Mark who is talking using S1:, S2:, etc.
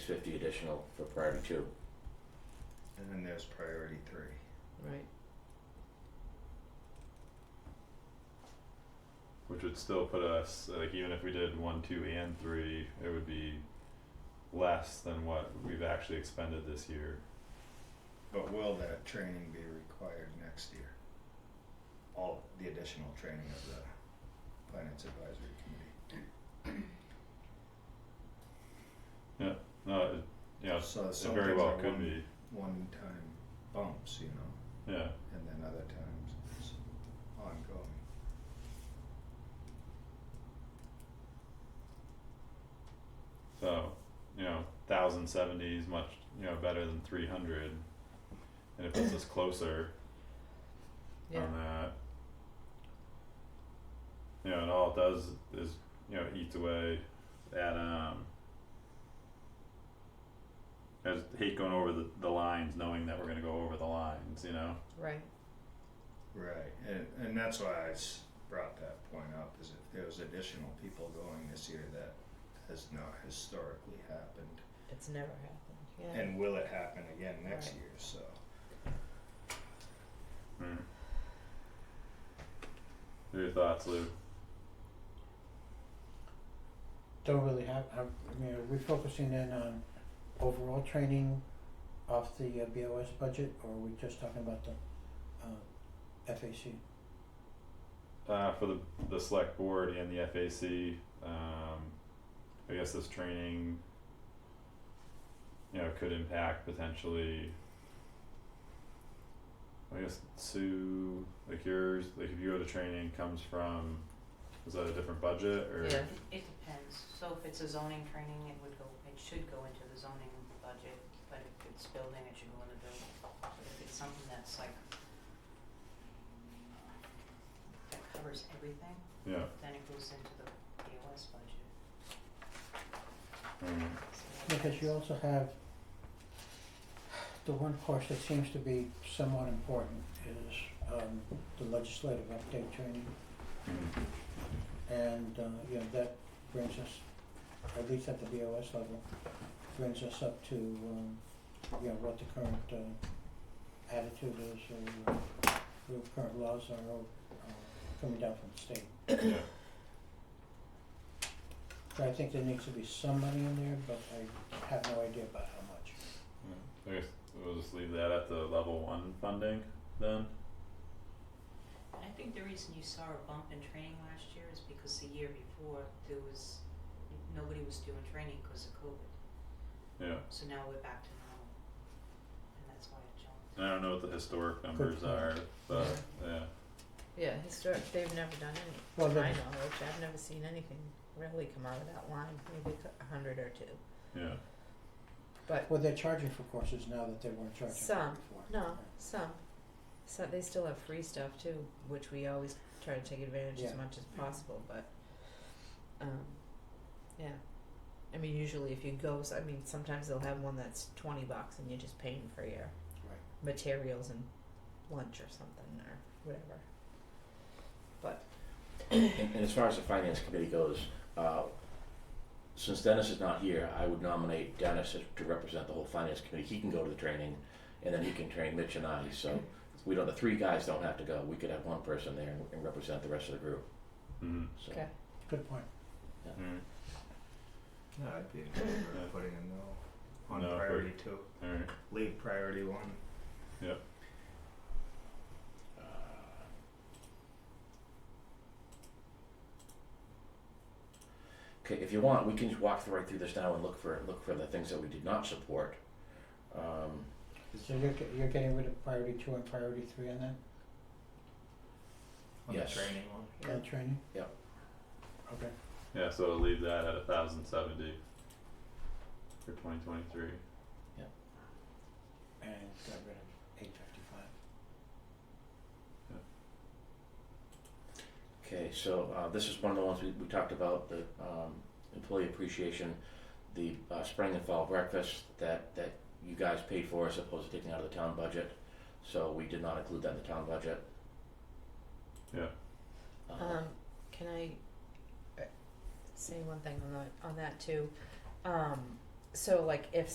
S1: fifty additional for priority two.
S2: And then there's priority three.
S3: right?
S4: Which would still put us, like even if we did one, two and three, it would be less than what we've actually expended this year.
S2: But will that training be required next year? All the additional training of the finance advisory committee.
S4: No, it, Uh, you know,
S2: So
S4: it
S2: some
S4: very
S2: things
S4: well
S2: are
S4: could
S2: one-
S4: be,
S2: One time bumps, you know,
S4: yeah,
S2: and then other times it's ongoing.
S4: so, you know, thousand seventy is much, you know, better than three hundred. And it puts us closer
S3: Yeah,
S4: on that. You know, and all it does is, you know, eats away at um I just hate going over the, the lines knowing that we're gonna go over the lines, you know?
S3: right,
S2: Right, and, and that's why I s- brought that point up, is if there was additional people going this year that has not historically happened.
S3: it's never happened, yeah,
S2: And will it happen again next
S3: Right.
S2: year, so.
S4: Mm. What are your thoughts, Lou?
S5: don't really have, I I mean, are we focusing in on overall training off the uh, BOS budget, or are we just talking about the uh FAC?
S4: Uh for the the select board and the FAC, um I guess this training you know, could impact potentially I guess Sue, like yours, like if you go to training comes from, is that a different budget or?
S3: yeah,
S6: It depends, so if it's a zoning training, it would go, it should go into the zoning budget, but if it's building, it should go into building. But if it's something that's like, uh, that covers everything,
S4: Yeah,
S6: then it goes into the BOS budget.
S4: mm,
S6: So
S5: Because you also have the one course that seems to be somewhat important is um the legislative update training.
S4: mm,
S5: And uh you know, that brings us, at least at the BOS level, brings us up to um you know, what the current uh attitude is or uh, what current laws are uh coming down from the state.
S4: yeah,
S5: But I think there needs to be some money in there, but I have no idea about how much.
S4: yeah. I guess we'll just leave that at the level one funding then,
S6: I think the reason you saw a bump in training last year is because the year before, there was, nobody was doing training because of COVID.
S4: yeah.
S6: So now we're back to normal, and that's why it jumped.
S4: I don't know what the historic numbers
S5: point.
S4: are, but yeah,
S3: yeah, historic, they've never done any,
S5: Well,
S3: to my
S5: then-
S3: knowledge, I've never seen anything really come out of that line, maybe a cou- a hundred or two,
S4: yeah,
S3: but
S5: Well, they're charging for courses now that they weren't charging for
S3: Some.
S5: before.
S3: No, some. So they still have free stuff too, which we always try to take advantage as
S5: Yeah.
S3: much as possible, but um yeah. I mean usually if you go s- I mean sometimes they'll have one that's twenty bucks and you're just paying for your
S5: Right.
S3: materials and lunch or something or whatever.
S1: And, and as far as the finance committee goes, uh, since Dennis is not here, I would nominate Dennis as- to represent the whole finance committee. He can go to the training, and then he can train Mitch and I. So we don't. The three guys don't have to go. We could have one person there and, and represent the rest of the group.
S4: mm,
S1: So
S3: Okay.
S5: Good point.
S4: mm,
S2: No, I'd be in favor of putting a no on
S4: No, but-
S2: priority two,
S4: alright,
S2: leave priority one.
S1: uh, Okay, if you want, we can just walk right through this now and look for look for the things that we did not support. Um,
S5: So you're, ge- you're getting rid of priority two and priority three on that,
S2: On the
S1: Yes.
S2: training one.
S5: on training?
S1: Yep.
S5: Okay.
S4: yeah, so we'll leave that at a thousand seventy for twenty twenty-three.
S5: And got rid of eight fifty-five.
S1: Okay, so uh, this is one of the ones we, we talked about, the um, employee appreciation, the uh, spring and fall breakfast that, that you guys paid for as opposed to taking out of the town budget. So we did not include that in the town budget.
S4: Yeah.
S1: Uh,
S3: Um, can I uh, say one thing on that, on that too? Um, so like if